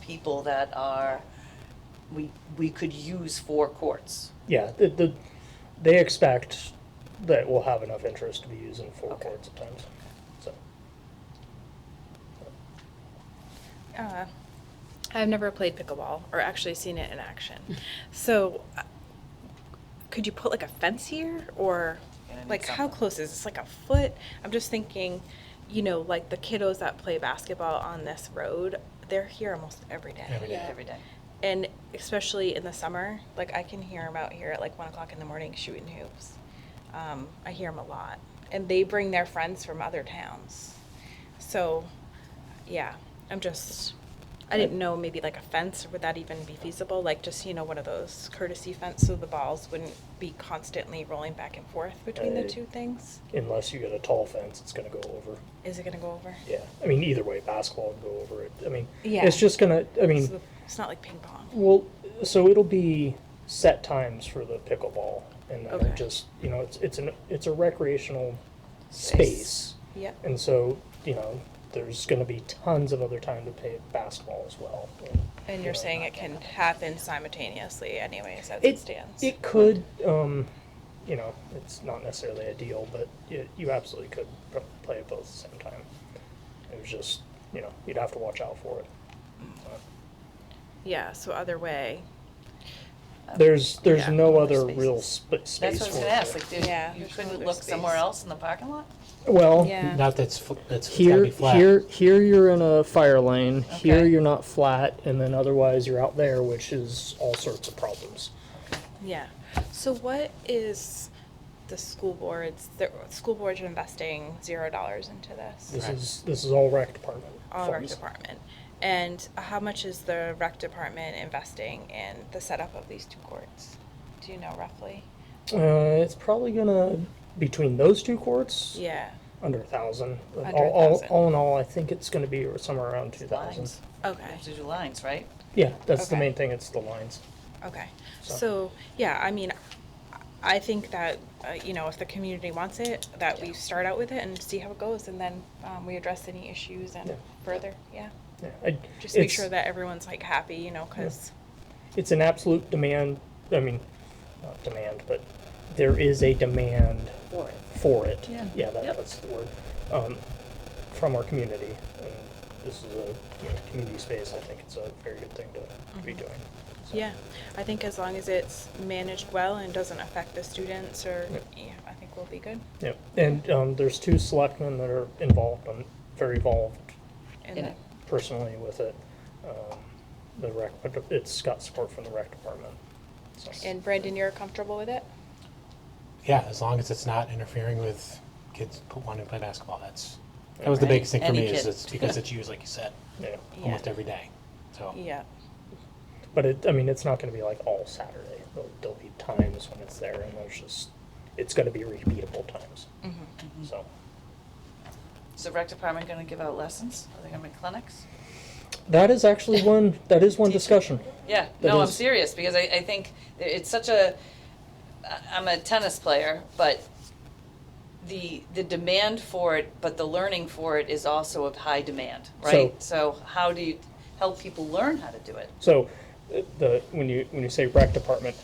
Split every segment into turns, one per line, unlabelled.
people that are, we, we could use for courts.
Yeah, the, the, they expect that we'll have enough interest to be used in four
Okay.
courts at times, so.
Uh, I've never played pickleball or actually seen it in action.
Hmm.
So, uh, could you put like a fence here or
Gonna need
like how
something.
close is this? Like a foot? I'm just thinking, you know, like the kiddos that play basketball on this road, they're here almost every day.
Every day. Yeah.
Every day.
And especially in the summer, like I can hear them out here at like one o'clock in the morning shooting hoops. Um, I hear them a lot. And they bring their friends from other towns. So, yeah, I'm just, I didn't know maybe like a fence, would that even be feasible? Like just, you know, one of those courtesy fence so the balls wouldn't be constantly rolling back and forth between the
Right.
two things?
Unless you get a tall fence, it's gonna go over.
Is it gonna go over?
Yeah, I mean, either way, basketball would go over it. I mean,
Yeah.
it's just gonna, I mean.
So it's not like ping pong.
Well, so it'll be set times for the pickleball, and then
Okay.
it just you know it's it's an it's a recreational
Space.
space,
Yep.
and so you know there's going to be tons of other time to play basketball as well. And,
And
you
you're
know,
saying it can happen simultaneously anyways as it
it
stands?
it could um, you know it's not necessarily ideal, but it, you absolutely could pr- play it both at the same time. It was just you know you'd have to watch out for it.
Yeah, so other way.
There's there's
Yeah,
no
other
other real
spaces.
sp-
That's
space.
what I was
for
gonna
it.
ask, like, dude,
Yeah,
you
there's no
couldn't
other
look somewhere
space.
else in the parking lot?
Well,
Yeah.
Not that's fl- that's it's gotta
here
be flat.
here here you're in a fire lane here
Okay.
you're not flat and then otherwise you're out there which is all sorts of problems
Yeah. So what is the school boards, the school boards are investing zero dollars into this?
this
Right.
is this is all rec department
All rec
funds.
department. And how much is the rec department investing in the setup of these two courts? Do you know roughly?
uh, it's probably gonna between those two courts
Yeah.
under a thousand all,
Under a
all,
thousand.
all in all i think it's gonna be somewhere around two thousand
Lines.
Okay.
To do lines, right?
yeah that's the
Okay.
main thing it's the lines
Okay.
So-
So, yeah, I mean, I think that, uh, you know, if the community wants it, that we start out with it and see how it goes and then, um, we address any issues and
Yeah.
further, yeah.
yeah, I,
Just make
it's-
sure that everyone's like happy, you know, cause,
it's an absolute demand i mean not demand but there is a demand
For it.
for it.
Yeah.
that,
Yep.
that's the word. Um, from our community. And this is a you know, community space. I think it's a very good thing to, to be doing. So,
Mm-hmm. yeah. I think as long as it's managed well and doesn't affect the students or,
Yeah.
yeah, I think we'll be good.
Yep. And um, there's two selectmen that are involved. I'm very involved
And
In
then-
it.
personally with it. Um, the rec, but it's got support from the rec department. So.
And Brandon, you're comfortable with it?
Yeah, as long as it's not interfering with kids p- wanting to play basketball. That's that was the
Right.
biggest thing for
Any
me is
kid.
it's because it's used, like you said,
yeah.
Yeah.
almost every day. So
Yeah.
But it, I mean, it's not going to be like all Saturday. There'll, there'll be times when it's there, and there's just it's going to be repeatable times.
Mm-hmm.
So.
Mm-hmm. Is the rec department gonna give out lessons? Are they gonna make clinics?
That is actually one. That is one discussion.
Yeah,
That
no, I'm
is-
serious because I, I think that it's such a. I- I'm a tennis player, but the the demand for it, but the learning for it is also of high demand, right? So, how do you help people learn how to do it?
So, uh, the when you when you say rec department,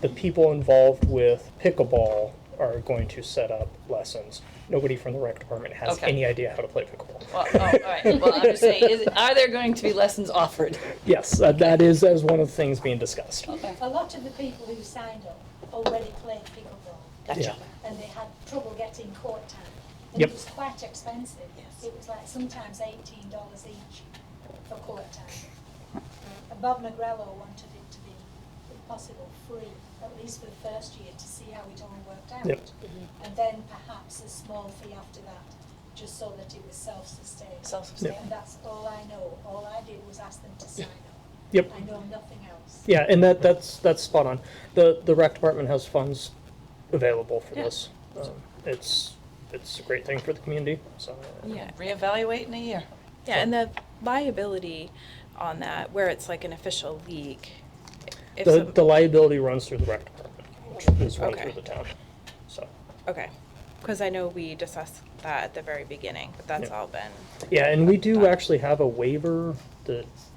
the people involved with pickleball are going to set up lessons. Nobody from the rec department has
Okay.
any idea how to play pickleball.
Well, oh, all right. Well, I'm just saying, is, are there going to be lessons offered?
yes, uh, that is that is one of the things being discussed.
Oh,
A lot of the people who signed up already played pickleball
Yeah.
and they had trouble getting court time. And
Yep.
it was quite expensive. It was like sometimes eighteen dollars each for court time. And Bob Negrello wanted it to be, if possible, free, at least for the first year, to see how it all worked out.
Yep.
And then perhaps a small fee after that, just so that it was self-sustained.
Self-sustained.
And that's all I know. All I did was ask them to sign up.
Yep.
I know nothing else.
Yeah, and that that's that's spot on. The the rec department has funds available for
Yeah.
this. Um, it's it's a great thing for the community. So uh,
Yeah.
Reevaluate in a year.
Yeah, and the liability on that, where it's like an official league. if
the,
some-
the liability runs through the rec department, which is run
Okay.
through the town. So
Okay, because I know we discussed that at the very beginning, but that's
Yeah.
all been,
yeah, and we do actually have a waiver that